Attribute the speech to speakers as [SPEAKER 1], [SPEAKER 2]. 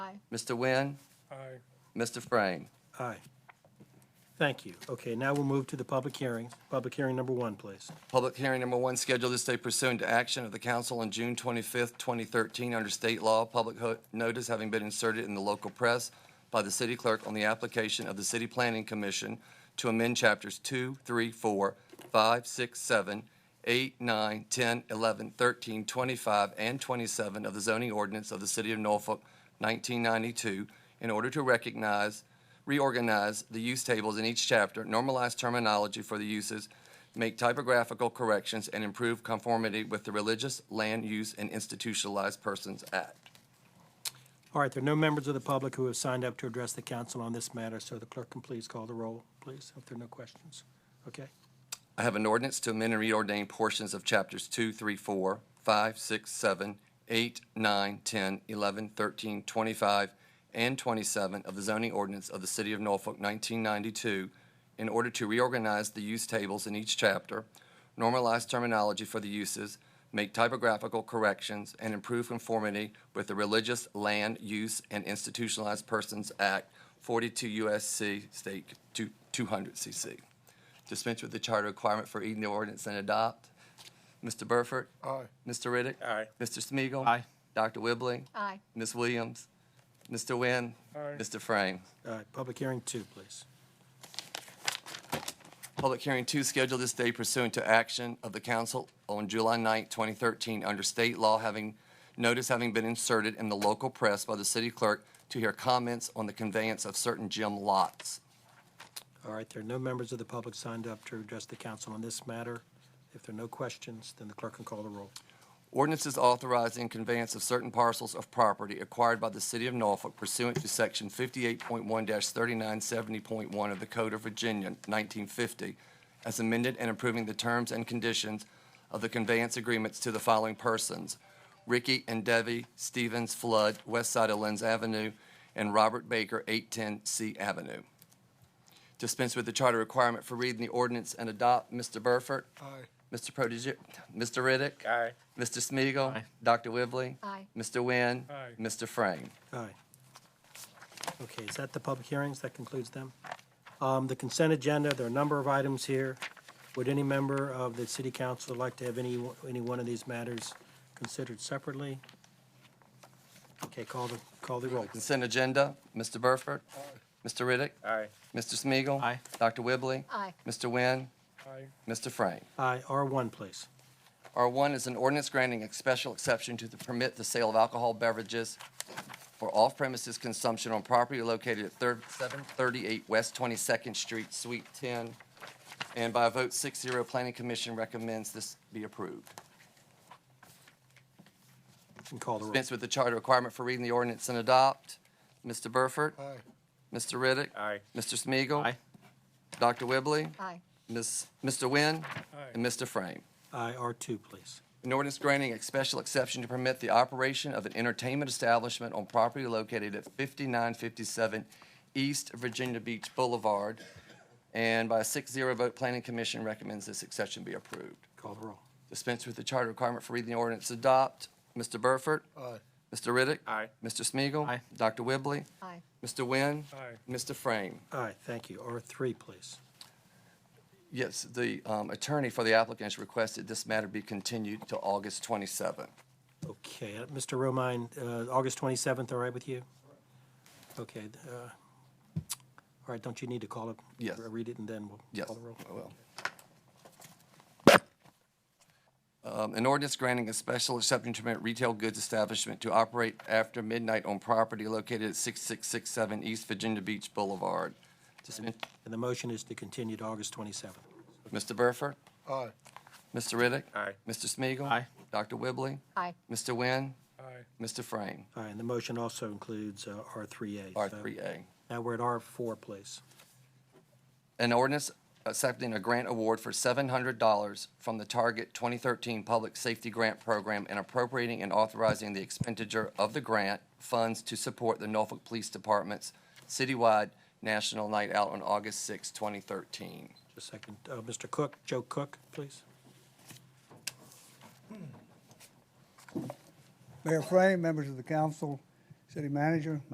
[SPEAKER 1] Mr. Nguyen,
[SPEAKER 2] Aye.
[SPEAKER 1] Mr. Frame.
[SPEAKER 3] Aye. Thank you. Okay, now we'll move to the public hearings. Public hearing number one, please.
[SPEAKER 1] Public hearing number one scheduled this day pursuant to action of the council on June 25th, 2013, under state law, public ho- notice having been inserted in the local press by the city clerk on the application of the City Planning Commission to amend Chapters 2, 3, 4, 5, 6, 7, 8, 9, 10, 11, 13, 25, and 27 of the zoning ordinance of the City of Norfolk, 1992, in order to recognize reorganize the use tables in each chapter, normalize terminology for the uses, make typographical corrections, and improve conformity with the Religious Land Use and Institutionalized Persons Act.
[SPEAKER 3] All right, there are no members of the public who have signed up to address the council on this matter, so the clerk can please call the roll, please, if there are no questions. Okay?
[SPEAKER 1] I have an ordinance to amend and reordain portions of chapters 2, 3, 4, 5, 6, 7, 8, 9, 10, 11, 13, 25, and 27 of the zoning ordinance of the City of Norfolk, 1992, in order to reorganize the use tables in each chapter, normalize terminology for the uses, make typographical corrections, and improve conformity with the Religious Land Use and Institutionalized Persons Act, 42 U.S.C., State 200 CC dispense with the charter requirement for reading the ordinance and adopt. Mr. Burford?
[SPEAKER 2] Aye.
[SPEAKER 1] Mr. Riddick?
[SPEAKER 2] Aye.
[SPEAKER 1] Mr. Smiegel?
[SPEAKER 4] Aye.
[SPEAKER 1] Dr. Whibley?
[SPEAKER 5] Aye.
[SPEAKER 1] Ms. Williams? Mr. Nguyen?
[SPEAKER 2] Aye.
[SPEAKER 1] Mr. Frame?
[SPEAKER 3] All right, public hearing two, please.
[SPEAKER 1] Public hearing two scheduled this day pursuant to action of the council on July 9, 2013, under state law having, notice having been inserted in the local press by the city clerk to hear comments on the conveyance of certain gym lots.
[SPEAKER 3] All right, there are no members of the public signed up to address the council on this matter. If there are no questions, then the clerk can call the roll.
[SPEAKER 1] Ordinances authorizing conveyance of certain parcels of property acquired by the City of Norfolk pursuant to Section 58.1-3970.1 of the Code of Virginia, 1950, as amended and approving the terms and conditions of the conveyance agreements to the following persons: Ricky and Debbie Stevens Flood, west side of Lenz Avenue, and Robert Baker, 810 C Avenue. Dispense with the charter requirement for reading the ordinance and adopt. Mr. Burford?
[SPEAKER 2] Aye.
[SPEAKER 1] Mr. Protege, Mr. Riddick?
[SPEAKER 2] Aye.
[SPEAKER 1] Mr. Smiegel. Dr. Whibley.
[SPEAKER 5] Aye.
[SPEAKER 1] Mr. Nguyen.
[SPEAKER 2] Aye.
[SPEAKER 1] Mr. Frame.
[SPEAKER 3] Aye. Okay, is that the public hearings? That concludes them. Um, The consent agenda, there are a number of items here. Would any member of the city council like to have any, any one of these matters considered separately? Okay, call the, call the roll.
[SPEAKER 1] Consent agenda, Mr. Burford. Mr. Riddick.
[SPEAKER 2] Aye.
[SPEAKER 1] Mr. Smiegel.
[SPEAKER 4] Aye.
[SPEAKER 1] Dr. Whibley.
[SPEAKER 5] Aye.
[SPEAKER 1] Mr. Nguyen.
[SPEAKER 2] Aye.
[SPEAKER 1] Mr. Frame.
[SPEAKER 3] Aye, R1, please.
[SPEAKER 1] R1 is an ordinance granting a special exception to the permit the sale of alcohol beverages for off-premises consumption on property located at thir- 738 West 22nd Street, Suite 10. And by a vote 6-0, Planning Commission recommends this be approved.
[SPEAKER 3] And call the roll.
[SPEAKER 1] Dispense with the charter requirement for reading the ordinance and adopt. Mr. Burford?
[SPEAKER 2] Aye.
[SPEAKER 1] Mr. Riddick?
[SPEAKER 2] Aye.
[SPEAKER 1] Mr. Smiegel?
[SPEAKER 4] Aye.
[SPEAKER 1] Dr. Whibley?
[SPEAKER 5] Aye.
[SPEAKER 1] Ms., Mr. Nguyen?
[SPEAKER 2] Aye.
[SPEAKER 1] And Mr. Frame.
[SPEAKER 3] Aye, R2, please.
[SPEAKER 1] An ordinance granting a special exception to permit the operation of an entertainment establishment on property located at 5957 East Virginia Beach Boulevard. And by a 6-0 vote, Planning Commission recommends this exception be approved.
[SPEAKER 3] Call the roll.
[SPEAKER 1] Dispense with the charter requirement for reading the ordinance and adopt. Mr. Burford?
[SPEAKER 2] Aye.
[SPEAKER 1] Mr. Riddick?
[SPEAKER 2] Aye.
[SPEAKER 1] Mr. Smiegel?
[SPEAKER 4] Aye.
[SPEAKER 1] Dr. Whibley?
[SPEAKER 5] Aye.
[SPEAKER 1] Mr. Nguyen?
[SPEAKER 2] Aye.
[SPEAKER 1] Mr. Frame?
[SPEAKER 3] Aye, thank you. R3, please.
[SPEAKER 1] Yes, the um, attorney for the applicant has requested this matter be continued to August 27th.
[SPEAKER 3] Okay, uh, Mr. Romine, uh, August 27th, all right with you? Okay, uh, all right, don't you need to call it?
[SPEAKER 1] Yes.
[SPEAKER 3] Read it and then we'll
[SPEAKER 1] Yes,
[SPEAKER 3] call the roll.
[SPEAKER 1] I will. Um, An ordinance granting a special exception to permit retail goods establishment to operate after midnight on property located at 6667 East Virginia Beach Boulevard. Dispense-
[SPEAKER 3] And the motion is to continue to August 27th.
[SPEAKER 1] Mr. Burford?
[SPEAKER 2] Aye.
[SPEAKER 1] Mr. Riddick?
[SPEAKER 2] Aye.
[SPEAKER 1] Mr. Smiegel?
[SPEAKER 4] Aye.
[SPEAKER 1] Dr. Whibley?
[SPEAKER 5] Aye.
[SPEAKER 1] Mr. Nguyen?
[SPEAKER 2] Aye.
[SPEAKER 1] Mr. Frame?
[SPEAKER 3] All right, and the motion also includes uh, R3A. So
[SPEAKER 1] R3A.
[SPEAKER 3] Now we're at R4, please.
[SPEAKER 1] An ordinance accepting a grant award for $700 from the Target 2013 Public Safety Grant Program and appropriating and authorizing the expenditure of the grant funds to support the Norfolk Police Department's citywide National Night Out on August 6, 2013.
[SPEAKER 3] Just a second. Uh, Mr. Cook, Joe Cook, please.
[SPEAKER 6] Mayor Frey, members of the council, city manager,